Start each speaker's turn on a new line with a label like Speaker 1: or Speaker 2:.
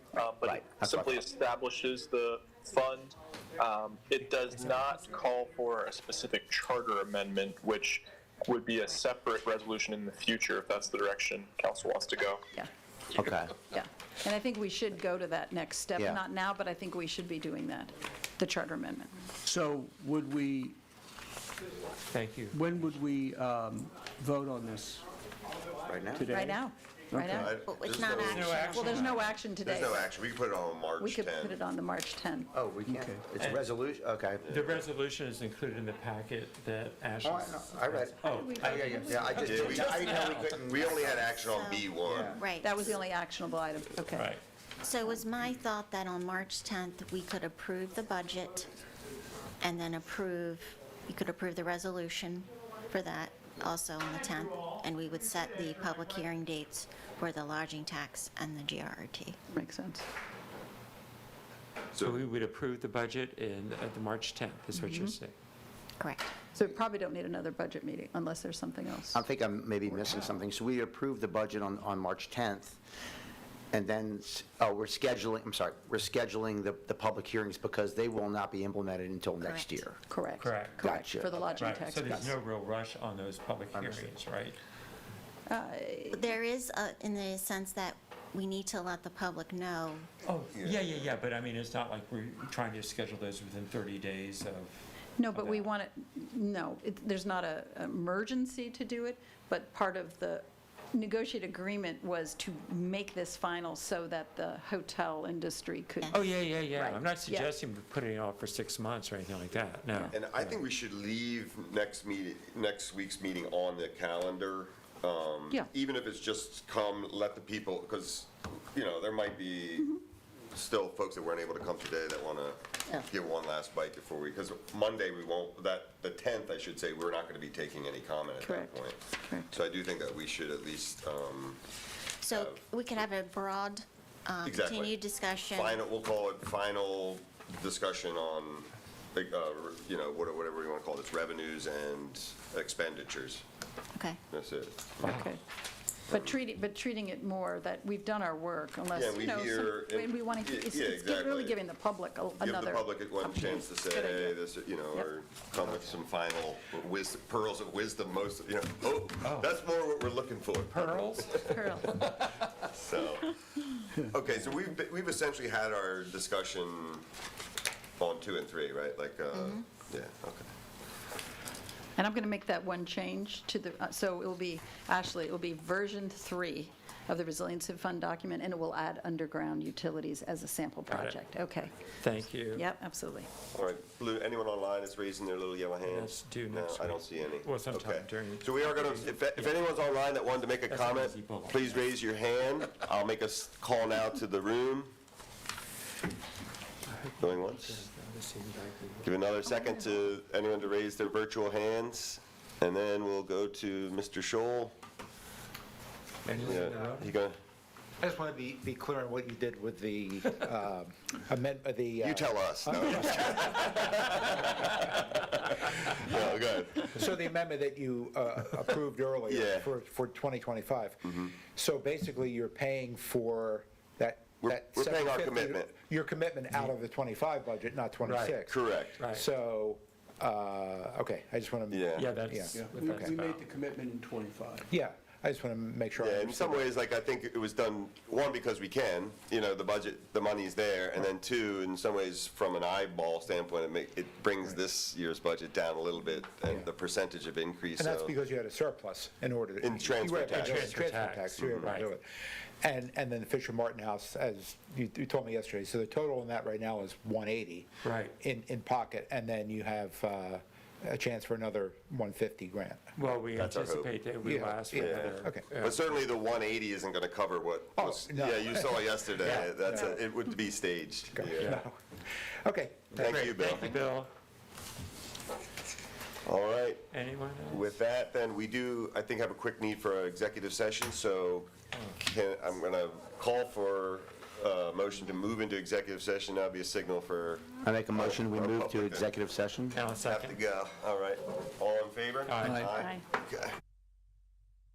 Speaker 1: Um, but
Speaker 2: Right,
Speaker 1: it
Speaker 2: that's
Speaker 1: simply
Speaker 2: what-
Speaker 1: establishes the fund. Um, it does not call for a specific charter amendment, which would be a separate resolution in the future if that's the direction council wants to go.
Speaker 3: yeah,
Speaker 2: Okay,
Speaker 3: yeah. And I think we should go to that next step,
Speaker 2: Yeah.
Speaker 3: not now, but I think we should be doing that, the charter amendment.
Speaker 4: So would we,
Speaker 5: Thank you.
Speaker 4: when would we um, vote on this?
Speaker 6: Right now?
Speaker 4: Today?
Speaker 3: Right now, right now.
Speaker 6: I-
Speaker 7: Well, it's
Speaker 6: there's
Speaker 7: not
Speaker 6: no-
Speaker 7: action.
Speaker 3: Well, there's no action today.
Speaker 6: There's no action. We can put it on March 10.
Speaker 3: We could put it on the March 10.
Speaker 2: oh, we can't,
Speaker 4: Okay.
Speaker 2: it's a resolution, okay.
Speaker 5: The resolution is included in the packet that Ash.
Speaker 2: Oh, I- I read it.
Speaker 5: Oh,
Speaker 2: Yeah, yeah, yeah, I just,
Speaker 6: Yeah, we-
Speaker 2: didn't- I didn't know we couldn't,
Speaker 6: We only had action on B1.
Speaker 7: Right.
Speaker 3: That was the only actionable item, okay.
Speaker 5: right.
Speaker 7: So was my thought that on March 10th, we could approve the budget and then approve, you could approve the resolution for that also on the 10th, and we would set the public hearing dates for the lodging tax and the GRT.
Speaker 3: Makes sense.
Speaker 5: So we would approve the budget in, at the March 10th, is what you're saying.
Speaker 7: Correct.
Speaker 3: So we probably don't need another budget meeting unless there's something else.
Speaker 2: I think I'm maybe missing something. So we approved the budget on, on March 10th, and then, s- oh, we're scheduling, I'm sorry, we're scheduling the, the public hearings because they will not be implemented until next
Speaker 7: Correct.
Speaker 2: year.
Speaker 3: Correct.
Speaker 5: Correct.
Speaker 3: Correct,
Speaker 2: Gotcha.
Speaker 3: for the lodging
Speaker 5: Right,
Speaker 3: tax.
Speaker 5: so there's
Speaker 3: yes.
Speaker 5: no real rush on those public hearings, right?
Speaker 3: Uh,
Speaker 7: There is, a- in the sense that we need to let the public know,
Speaker 5: Oh, yeah, yeah, yeah, but I mean, it's not like we're trying to schedule those within 30 days of,
Speaker 3: No, but we
Speaker 5: Okay.
Speaker 3: want it, no, it- there's not a emergency to do it, but part of the negotiated agreement was to make this final so that the hotel industry could.
Speaker 5: oh, yeah, yeah,
Speaker 3: Right,
Speaker 5: yeah. I'm
Speaker 3: yeah.
Speaker 5: not suggesting putting it off for six months or anything like that, no.
Speaker 6: And I think we should leave next meeting, next week's meeting on the calendar. um,
Speaker 3: Yeah.
Speaker 6: Even if it's just come, let the people, because, you know, there might be
Speaker 3: Mm-hmm.
Speaker 6: still folks that weren't able to come today that want to give one last bite before we, because Monday we won't, that, the 10th, I should say, we're not going to be taking any comment at that
Speaker 3: Correct,
Speaker 6: point.
Speaker 3: correct.
Speaker 6: So I do think that we should at least, um,
Speaker 7: so we could have a broad, uh,
Speaker 6: Uh, Exactly.
Speaker 7: continued discussion.
Speaker 6: final, we'll call it final discussion on, like, uh, you know, what- whatever you want to call this, revenues and expenditures.
Speaker 7: Okay.
Speaker 6: That's it.
Speaker 3: Okay. But treating, but treating it more that we've done our work
Speaker 6: Yeah,
Speaker 3: unless,
Speaker 6: we
Speaker 3: you know, some-
Speaker 6: hear and-
Speaker 3: and we want to, it's
Speaker 6: yeah,
Speaker 3: it's gi- really
Speaker 6: exactly.
Speaker 3: giving the public a- another.
Speaker 6: Give the public one chance to say,
Speaker 3: Good idea.
Speaker 6: hey, this, you know,
Speaker 3: Yep.
Speaker 6: or come with some final wis- pearls of wisdom, most, you know, oh, that's more what we're looking for.
Speaker 5: Pearls?
Speaker 3: Pearl.
Speaker 6: So, okay, so we've, be- we've essentially had our discussion on two and three, right? Like, uh,
Speaker 3: Mm-hmm.
Speaker 6: yeah, okay.
Speaker 3: And I'm going to make that one change to the, uh, so it will be, Ashley, it will be version three of the resiliency fund document, and it will add underground utilities as a sample
Speaker 5: Got it.
Speaker 3: project. Okay.
Speaker 5: Thank you.
Speaker 3: Yep, absolutely.
Speaker 6: All right, blue, anyone online is raising their little yellow hand?
Speaker 5: That's due next
Speaker 6: No, I
Speaker 5: week.
Speaker 6: don't see any.
Speaker 5: Well, sometime
Speaker 6: Okay.
Speaker 5: during-
Speaker 6: So we are gonna, if, if anyone's online that wanted to make a
Speaker 5: That's an
Speaker 6: comment,
Speaker 5: easy bullet.
Speaker 6: please raise your hand. I'll make a s- call now to the room. Going once. Give another second to anyone to raise their virtual hands, and then we'll go to Mr. Shoal.
Speaker 5: Anyone
Speaker 6: Yeah,
Speaker 5: in the room?
Speaker 6: you gonna,
Speaker 8: I just want to be, be clear on what you did with the um, amend, uh, the. uh,
Speaker 6: you tell us. No, I'm just kidding. No, go ahead.
Speaker 8: So the amendment that you uh, approved
Speaker 6: Yeah. Mm-hmm.
Speaker 8: earlier for, for 2025. So basically, you're paying for that.
Speaker 6: We're-
Speaker 8: that
Speaker 6: we're paying our
Speaker 8: 750
Speaker 6: commitment.
Speaker 8: Your commitment out of the 25 budget, not 26.
Speaker 6: Correct.
Speaker 5: Right.
Speaker 8: So, uh, okay, I just want to.
Speaker 6: Yeah.
Speaker 5: Yeah, that's
Speaker 8: Yeah.
Speaker 5: what
Speaker 4: We
Speaker 5: that's
Speaker 4: we
Speaker 5: about.
Speaker 4: made the commitment in '25.
Speaker 8: Yeah, I just want to make sure. I
Speaker 6: Yeah, in some
Speaker 8: understand.
Speaker 6: ways, like, I think it was done, one, because we can, you know, the budget, the money's there, and then two, in some ways, from an eyeball standpoint, it make, it brings this year's budget down a little bit, and the percentage of increase,
Speaker 8: And that's
Speaker 6: so-
Speaker 8: because you had a surplus in order to.
Speaker 6: In transfer
Speaker 8: you were able to
Speaker 6: tax.
Speaker 8: do it.
Speaker 5: Transfer
Speaker 8: Transfer
Speaker 5: tax,
Speaker 8: tax, you were able to
Speaker 5: right.
Speaker 8: do it. And, and then the Fisher Martin House, as you, you told me yesterday, so the total on that right now is 180.
Speaker 5: Right.
Speaker 8: In, in pocket, and then you have uh, a chance for another 150 grant.
Speaker 5: Well, we
Speaker 6: That's our hope.
Speaker 5: anticipate that we
Speaker 8: Yeah,
Speaker 5: last for
Speaker 8: yeah,
Speaker 5: another.
Speaker 8: okay.
Speaker 5: uh,
Speaker 6: But certainly, the 180 isn't gonna cover what
Speaker 8: Oh,
Speaker 6: was,
Speaker 8: no.
Speaker 6: yeah, you saw yesterday,
Speaker 8: Yeah,
Speaker 6: that's,
Speaker 8: no.
Speaker 6: a- it would be staged, yeah.
Speaker 5: Yeah.
Speaker 8: Okay.
Speaker 6: Thank you, Bill.
Speaker 5: Thank you, Bill.
Speaker 6: All right,
Speaker 5: Anyone else?
Speaker 6: with that, then, we do, I think, have a quick need for an executive session, so can, I'm gonna call for a motion to move into executive session, that'd be a signal for
Speaker 2: I make a motion, we
Speaker 6: Our
Speaker 2: move to
Speaker 6: public-
Speaker 2: executive session?
Speaker 5: Now,
Speaker 6: Have to
Speaker 5: second.
Speaker 6: go, all right. All in favor?
Speaker 5: Aye.
Speaker 3: Aye.
Speaker 6: Okay.